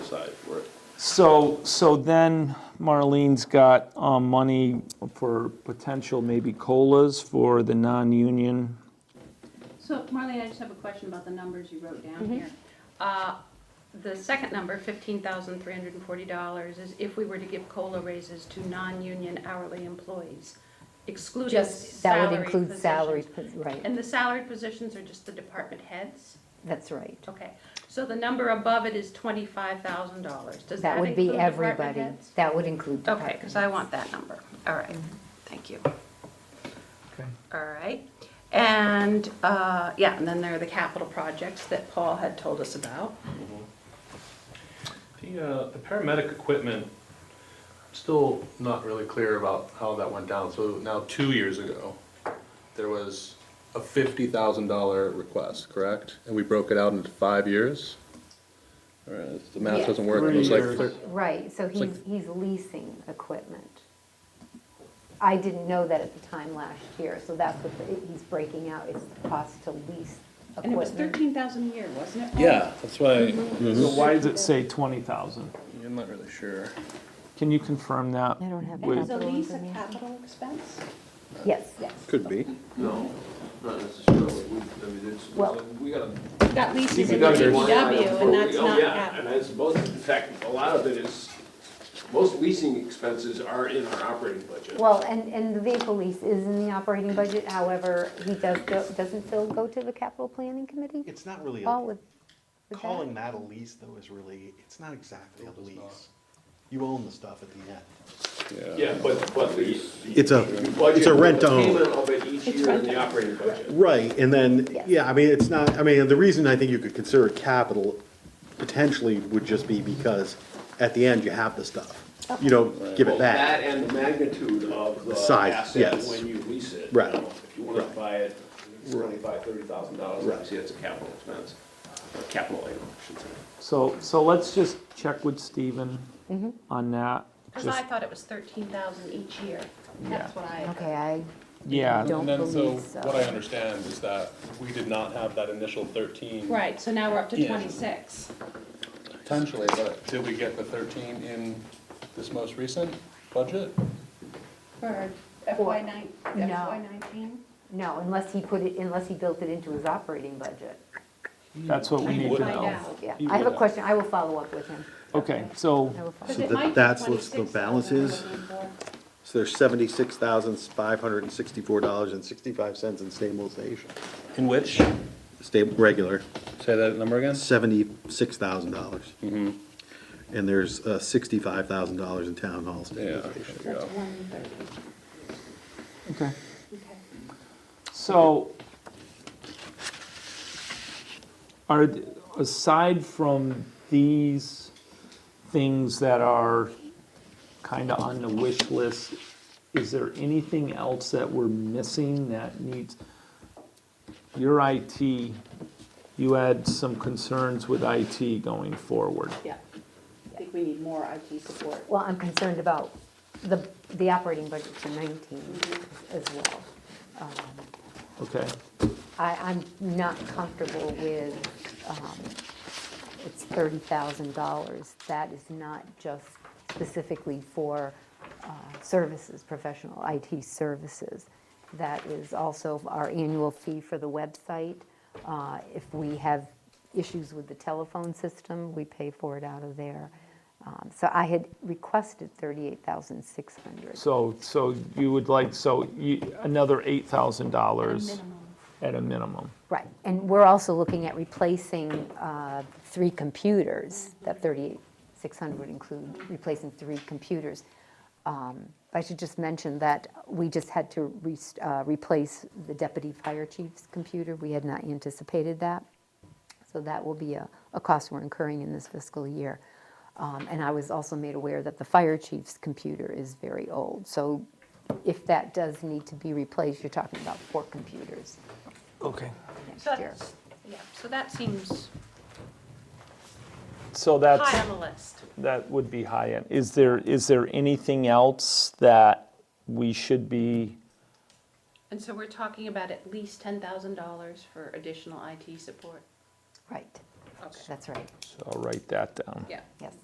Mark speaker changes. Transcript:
Speaker 1: So, so then Marlene's got um, money for potential maybe colas for the non-union.
Speaker 2: So Marlene, I just have a question about the numbers you wrote down
Speaker 3: Mm-hmm.
Speaker 2: here. Uh, The second number, $15,340, is if we were to give COLA raises to non-union hourly employees, excluding
Speaker 3: Just, that would
Speaker 2: salary
Speaker 3: include salary,
Speaker 2: positions.
Speaker 3: pos- right,
Speaker 2: And the salary positions are just the department heads?
Speaker 3: that's right.
Speaker 2: Okay, so the number above it is $25,000. Does that
Speaker 3: That would
Speaker 2: include
Speaker 3: be
Speaker 2: department
Speaker 3: everybody,
Speaker 2: heads?
Speaker 3: that would include
Speaker 2: Okay,
Speaker 3: department.
Speaker 2: because I want that number. All right, thank you.
Speaker 1: Okay.
Speaker 2: All right, and, uh, yeah, and then there are the capital projects that Paul had told us about.
Speaker 4: The, uh, the paramedic equipment, still not really clear about how that went down. So now, two years ago, there was a fifty thousand dollar request, correct? And we broke it out into five years? All right, the math
Speaker 3: Yeah.
Speaker 4: doesn't work. It
Speaker 1: Three
Speaker 4: was like
Speaker 1: years.
Speaker 4: thir-
Speaker 3: Right, so
Speaker 4: like-
Speaker 3: he's, he's leasing equipment. I didn't know that at the time last year, so that's what the- he's breaking out, it's the cost to lease
Speaker 2: And it was
Speaker 3: equipment.
Speaker 2: 13,000 a year, wasn't it? Paul?
Speaker 4: Yeah, that's why,
Speaker 1: So why does it say 20,000?
Speaker 4: I'm not really sure.
Speaker 1: Can you confirm that?
Speaker 3: I don't have
Speaker 2: And is
Speaker 1: with-
Speaker 2: a
Speaker 3: Capital
Speaker 2: lease a
Speaker 3: information.
Speaker 2: capital expense?
Speaker 3: Yes, yes,
Speaker 4: Could be.
Speaker 5: No, not necessarily. We, I mean, it's,
Speaker 3: Well-
Speaker 5: we got a.
Speaker 2: That lease is in the
Speaker 4: DPW.
Speaker 2: DPW, and that's
Speaker 5: Oh,
Speaker 2: not
Speaker 5: yeah,
Speaker 2: capital.
Speaker 5: And that's most, in fact, a lot of it is, most leasing expenses are in our operating budget.
Speaker 3: well, and, and the vehicle lease is in the operating budget, however, he does, go- doesn't Phil go to the capital planning committee?
Speaker 6: It's not really, a-
Speaker 3: Paul with, with that?
Speaker 6: calling that a lease though is really, it's not exactly a lease. You own the stuff at the end.
Speaker 5: Yeah, but, but the.
Speaker 6: It's a-
Speaker 5: the
Speaker 6: it's a
Speaker 5: budget, the
Speaker 6: rent-owned.
Speaker 5: Payment of it each year in the operating budget.
Speaker 6: Right, and then,
Speaker 3: Yes.
Speaker 6: yeah, I mean, it's not, I mean, the reason I think you could consider it capital potentially would just be because at the end you have the stuff. You don't give
Speaker 5: Well,
Speaker 6: it back.
Speaker 5: That and the magnitude of the
Speaker 6: Size,
Speaker 5: asset
Speaker 6: yes.
Speaker 5: when you lease it.
Speaker 6: Right.
Speaker 5: You know, If you wanna buy it, it's
Speaker 6: Right.
Speaker 5: twenty-five, thirty thousand dollars,
Speaker 6: Right.
Speaker 5: obviously that's a capital expense, a capital item, I should say.
Speaker 1: So, so let's just check with Stephen
Speaker 3: Mm-hmm.
Speaker 1: on that.
Speaker 2: Because I
Speaker 1: Just,
Speaker 2: thought it was 13,000 each year. That's what I.
Speaker 3: Okay, I,
Speaker 1: yeah.
Speaker 3: Don't
Speaker 4: And then, so,
Speaker 3: believe so.
Speaker 4: what I understand is that we did not have that initial thirteen.
Speaker 2: Right, so now we're up to
Speaker 4: Yeah.
Speaker 2: 26.
Speaker 4: Potentially, but did we get the thirteen in this most recent budget?
Speaker 2: For
Speaker 3: Or-
Speaker 2: FY nine-
Speaker 3: No.
Speaker 2: FY 19?
Speaker 3: no, unless he put it, unless he built it into his operating budget,
Speaker 1: That's what we
Speaker 4: He
Speaker 1: need to
Speaker 4: would
Speaker 2: Find
Speaker 1: know.
Speaker 2: out.
Speaker 3: yeah.
Speaker 4: He
Speaker 3: I have a
Speaker 4: would-
Speaker 3: question, I will follow up with him,
Speaker 1: Okay, so,
Speaker 3: I will follow up.
Speaker 2: Because
Speaker 6: So
Speaker 2: it
Speaker 6: that-
Speaker 2: might be
Speaker 6: that's what the
Speaker 2: 26,000
Speaker 6: balance
Speaker 2: we're
Speaker 6: is?
Speaker 2: looking for.
Speaker 6: So there's seventy-six thousand, five hundred and sixty-four dollars and sixty-five cents in stabilization.
Speaker 4: In which?
Speaker 6: Stable, regular,
Speaker 4: Say that number again? Mm-hmm.
Speaker 6: seventy-six thousand dollars. And there's uh, sixty-five thousand dollars in town hall
Speaker 4: Yeah.
Speaker 6: stabilization.
Speaker 4: there you go.
Speaker 2: That's 130.
Speaker 1: okay.
Speaker 2: Okay.
Speaker 1: So, are, th- aside from these things that are kind of on the wish list, is there anything else that we're missing that needs? Your IT, you had some concerns with IT going forward.
Speaker 2: Yeah, I think we need more IT support.
Speaker 3: Well, I'm concerned about the, the operating budget for 19 as well.
Speaker 1: Okay,
Speaker 3: I, I'm not comfortable with, um, it's $30,000. That is not just specifically for uh, services, professional IT services. That is also our annual fee for the website. Uh, If we have issues with the telephone system, we pay for it out of there. Um, So I had requested $38,600.
Speaker 1: so, so you would like, so you, another eight thousand dollars at a minimum.
Speaker 3: Right, and we're also looking at replacing uh, three computers, that 38600 would include replacing three computers. Um, I should just mention that we just had to re- uh, replace the deputy fire chief's computer, we had not anticipated that. So that will be a, a cost we're incurring in this fiscal year. Um, And I was also made aware that the fire chief's computer is very old. So if that does need to be replaced, you're talking about four computers
Speaker 1: Okay.
Speaker 3: next
Speaker 2: So
Speaker 3: year.
Speaker 2: that's- Yeah, so that seems
Speaker 1: So that's.
Speaker 2: high on the list.
Speaker 1: That would be high end. Is there, is there anything else that we should be,
Speaker 2: And so we're talking about at least $10,000 for additional IT support.
Speaker 3: Right,
Speaker 2: Okay.
Speaker 3: that's right,
Speaker 1: so I'll write that down.
Speaker 2: Yeah.
Speaker 3: yes.